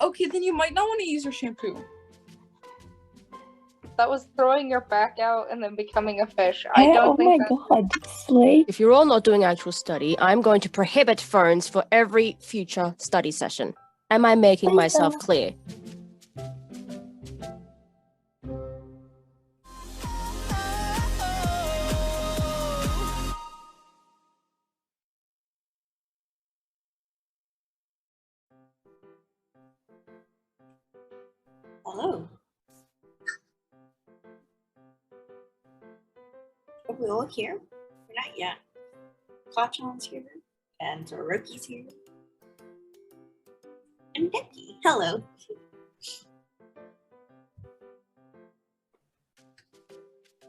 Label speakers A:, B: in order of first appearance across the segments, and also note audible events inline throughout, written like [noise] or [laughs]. A: Okay, then you might not want to use your shampoo.
B: That was throwing your back out and then becoming a fish. I don't
C: oh my
B: think that.
C: god, Slay.
D: If you're all not doing actual study, I'm going to prohibit phones for every future study session. Am I making
C: Please
D: myself
C: don't.
D: clear?
E: Hello. Are we all Oh, here? We're not yet. Klachan's here, and Toroki's here. And Becky, hello.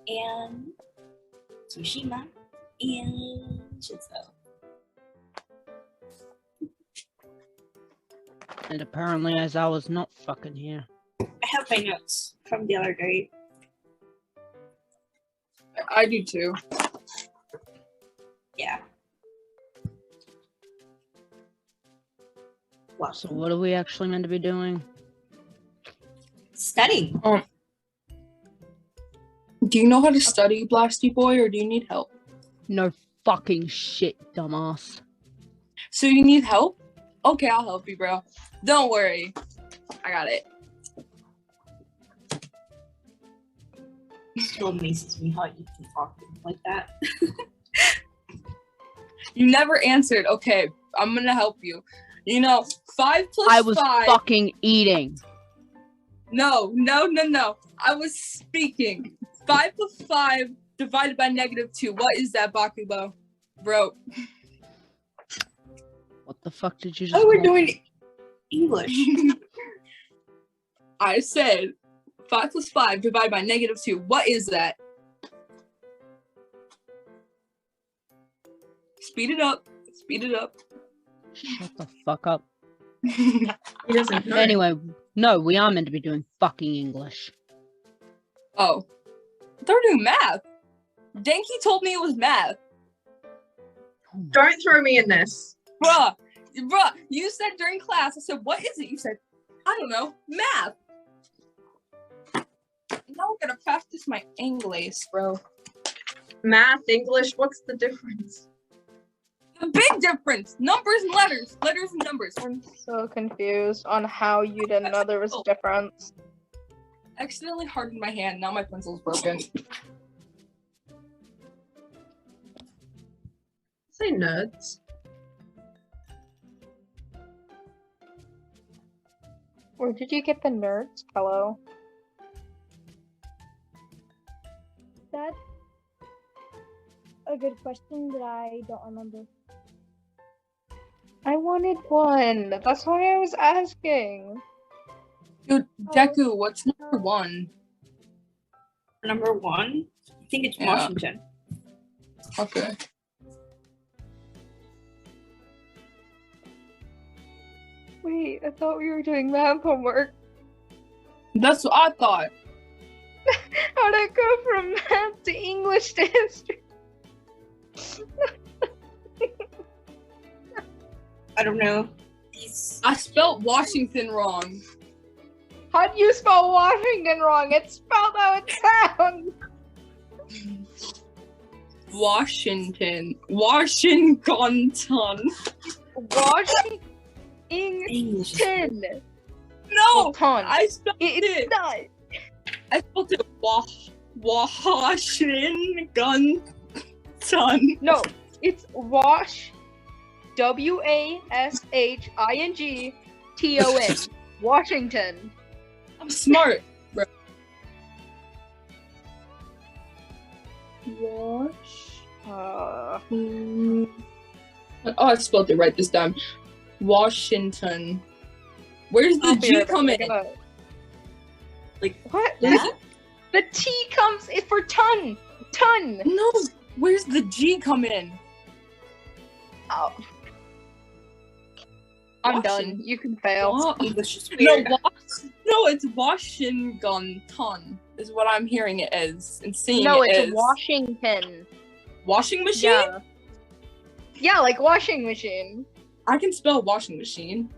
E: And Tsushima, and Shizuo.
F: And apparently, as I was not fucking here.
E: I have my notes from the other day.
A: I- I do too.
E: Yeah. Well,
F: So, what are we actually meant to be doing?
E: studying.
A: Do you know how to study, Blasty Boy, or do you need help?
F: No fucking shit, dumbass.
A: So you need help? Okay, I'll help you, bro. Don't worry. I got it.
E: It still amazes me how you can talk to him like that.
A: You never answered. Okay, I'm gonna help you. You know, five plus
F: I was
A: five.
F: fucking eating.
A: no, no, no, no. I was speaking. Five plus five divided by negative two. What is that, Bakugo? Bro,
F: What the fuck did you just
E: Oh, we're
F: call me?
E: doing English.
A: [laughs] I said five plus five divided by negative two. What is that? Speed it up. Speed it up.
F: Shut the fuck up.
A: he doesn't
F: Anyway, no, we are meant to be doing fucking English.
A: Oh. They're doing math. Denki told me it was math.
G: Don't throw me in this.
A: Bruh. Bruh. You said during class, I said, what is it? You said, I don't know, math. Now I'm gonna practice my English, bro.
G: Math, English, what's the difference?
A: The big difference. Numbers and letters. Letters and numbers.
B: I'm so confused on how you didn't know there was a
A: Oh.
B: difference.
A: accidentally hardened my hand. Now my pencil's broken.
G: Say nerds.
B: Where did you get the nerds? Hello.
C: That's a good question that I don't remember.
B: I wanted one. That's why I was asking.
A: Dude, Deku, what's number one?
E: Number one, I think it's
A: Yeah.
E: Washington.
A: Okay.
B: Wait, I thought we were doing math homework.
A: That's what I thought.
B: How'd I go from math to English to history?
E: I don't know. These
A: I spelt Washington wrong.
B: How'd you spell Washington wrong? It's spelled how it sounds.
A: Washington. Washington.
B: Washington.
E: English.
A: No! Oh,
B: Ton.
A: I spelled
B: It's
A: it.
B: not.
A: I spelled it Wa- Washington.
B: No, it's wash. W a s h i n g t o
E: [laughs]
B: n. Washington.
A: I'm smart, bro. Wash.
B: Uh,
A: Mm. Oh, I spelled it right this time. Washington. Where's the
B: I'll be
A: G
B: right
A: come in?
B: back.
E: Like,
B: what?
E: Yeah.
B: The T comes it for ton. Ton.
A: No, where's the G come in?
B: Oh. I'm done. You can fail.
A: Wa-
B: [laughs]
E: English is
A: Oh, no,
E: weird.
A: wa- no, it's Washington is what I'm hearing it is and seeing
B: No,
A: it
B: it's
A: is.
B: Washington.
A: washing machine.
B: Yeah. Yeah, like washing machine.
A: I can spell washing machine.